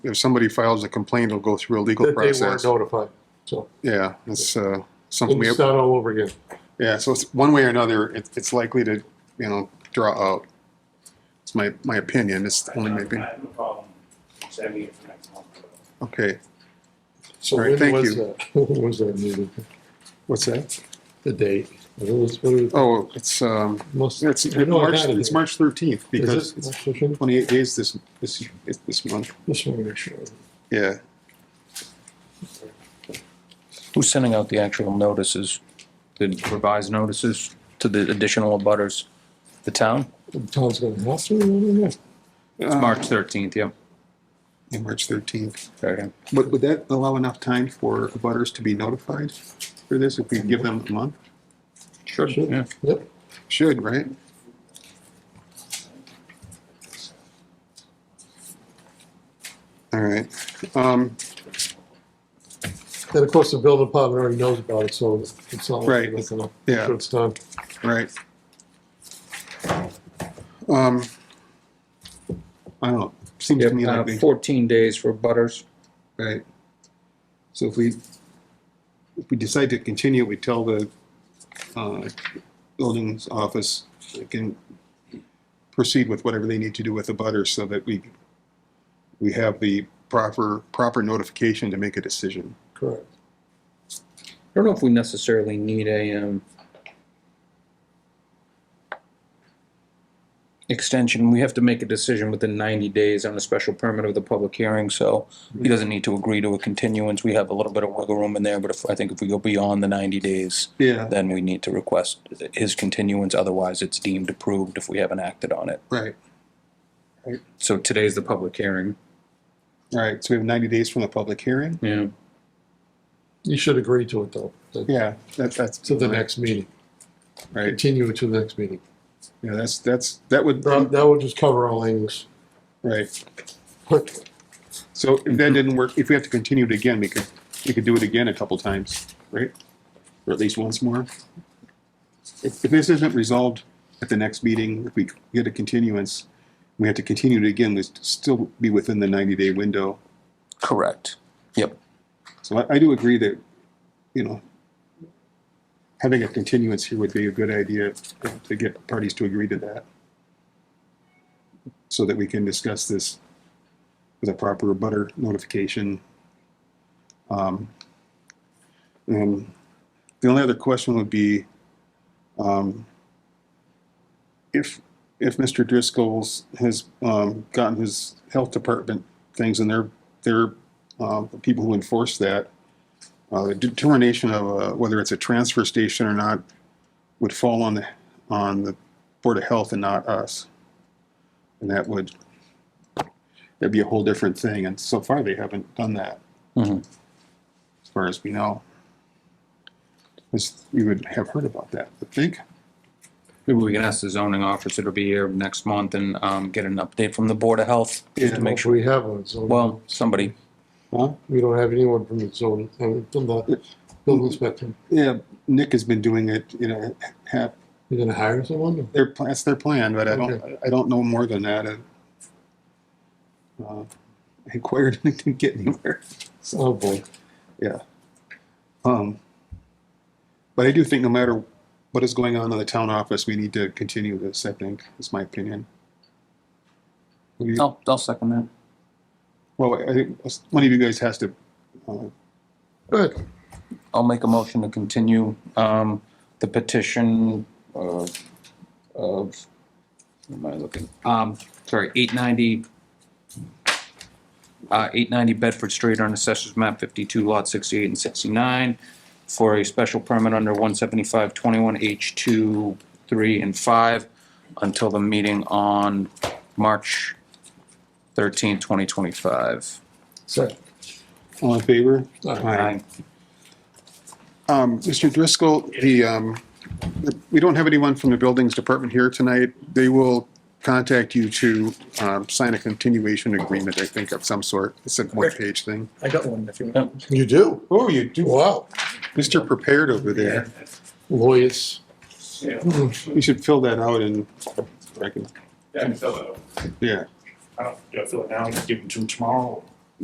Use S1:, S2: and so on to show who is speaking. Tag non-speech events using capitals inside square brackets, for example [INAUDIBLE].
S1: if somebody files a complaint, it'll go through a legal
S2: that they weren't
S1: process.
S2: notified. So
S1: Yeah, it's, uh, something we,
S2: it's not all over again.
S1: yeah, so it's, one way or another, it, it's likely to, you know, draw out. It's my, my opinion, it's only my
S3: I
S1: opinion.
S3: have no problem sending it for next month.
S1: Okay,
S2: So
S1: All right,
S2: when
S1: thank
S2: was
S1: you.
S2: that? [LAUGHS] When was that meeting?
S1: what's that?
S2: The date? What was, what was,
S1: Oh, it's, um,
S2: must,
S1: it's,
S2: I know I
S1: March,
S2: had it
S1: it's
S2: here.
S1: March thirteenth,
S2: is
S1: because
S2: this,
S1: it's
S2: March 15th?
S1: twenty-eight days this, this, it's this month,
S2: just want to make sure.
S1: yeah.
S4: Who's sending out the actual notices, the revised notices to the additional abutters? The town?
S2: Tom's gonna have to, I don't know.
S4: It's March 13th, yeah.
S1: Yeah, March thirteenth.
S4: Okay.
S1: But would that allow enough time for butters to be notified for this, if we give them a month?
S4: Sure.
S2: Sure.
S4: Yeah.
S2: Yep,
S1: Should, right? All right, um,
S2: and of course, the building department already knows about it, so it's not like
S1: Right.
S2: they're gonna,
S1: Yeah.
S2: so it's done.
S1: right. Um, I don't know, seems to me like
S4: Uh,
S1: we,
S4: 14 days for butters.
S1: right. So if we, if we decide to continue, we tell the, uh, buildings office, they can proceed with whatever they need to do with the butter so that we, we have the proper, proper notification to make a decision.
S2: Correct.
S4: I don't know if we necessarily need a, um, extension. We have to make a decision within 90 days on a special permit of the public hearing, so he doesn't need to agree to a continuance. We have a little bit of wiggle room in there, but if, I think if we go beyond the 90 days,
S1: Yeah.
S4: then we need to request his continuance, otherwise it's deemed approved if we haven't acted on it.
S1: Right,
S4: So today's the public hearing.
S1: all right, so we have ninety days from the public hearing?
S4: Yeah.
S2: You should agree to it though, that-
S1: Yeah, that's, that's.
S2: to the next meeting,
S1: Right,
S2: continue it to the next meeting.
S1: yeah, that's, that's, that would,
S2: That, that would just cover all angles.
S1: right,
S2: But
S1: so if that didn't work, if we have to continue it again, we could, we could do it again a couple times, right? Or at least once more. If, if this isn't resolved at the next meeting, if we get a continuance, we have to continue it again, we still be within the ninety day window.
S4: Correct. Yep.
S1: So I, I do agree that, you know, having a continuance here would be a good idea to get parties to agree to that. So that we can discuss this with a proper butter notification. Um, And the only other question would be, um, if, if Mr. Driscoll's has, um, gotten his health department things and their, their uh, the people who enforce that. Uh, the determination of uh, whether it's a transfer station or not would fall on the on the board of health and not us, and that would that'd be a whole different thing. And so far, they haven't done that,
S4: Mhm.
S1: as far as we know. As we would have heard about that, I think.
S4: Maybe we can ask the zoning officer to be here next month and um, get an update from the Board of Health, just
S1: Yeah.
S4: to make sure.
S2: we have one, so.
S4: Well, somebody,
S1: Huh?
S2: We don't have anyone from the zone, I mean, from the building inspector.
S1: Yeah, Nick has been doing it. You know, half
S2: You're gonna hire someone?
S1: their pl- that's their plan, but I don't I don't know more than that. I, uh, I inquired and didn't get anywhere.
S2: Oh, boy.
S1: Um, but I do think no matter what is going on in the town office, we need to continue this. I think is my opinion. We-
S4: I'll, I'll second that.
S1: Well, I think one of you guys has to. Uh,
S2: Good.
S4: I'll make a motion to continue um, the petition of, of, what am I looking? Um, sorry, eight ninety, uh, eight ninety Bedford Street on Assessors Map fifty-two, Lot sixty-eight and sixty-nine for a special permit under one seventy-five twenty-one H two, three, and five until the meeting on March thirteenth, twenty twenty-five.
S2: Second.
S1: all in favor?
S2: Aye.
S1: Um, Mr. Driscoll, the, um, we don't have anyone from the Buildings Department here tonight. They will contact you to, um, sign a continuation agreement, I think, of some sort. It's a one-page thing.
S5: I got one if you want.
S2: You do?
S1: Oh, you do.
S2: Wow.
S1: Mr. Prepared over there.
S2: Lawyers.
S3: Yeah,
S1: You should fill that out and, I can-
S3: I can fill it out.
S1: yeah,
S3: uh, I don't, do I fill it now, give them to them tomorrow?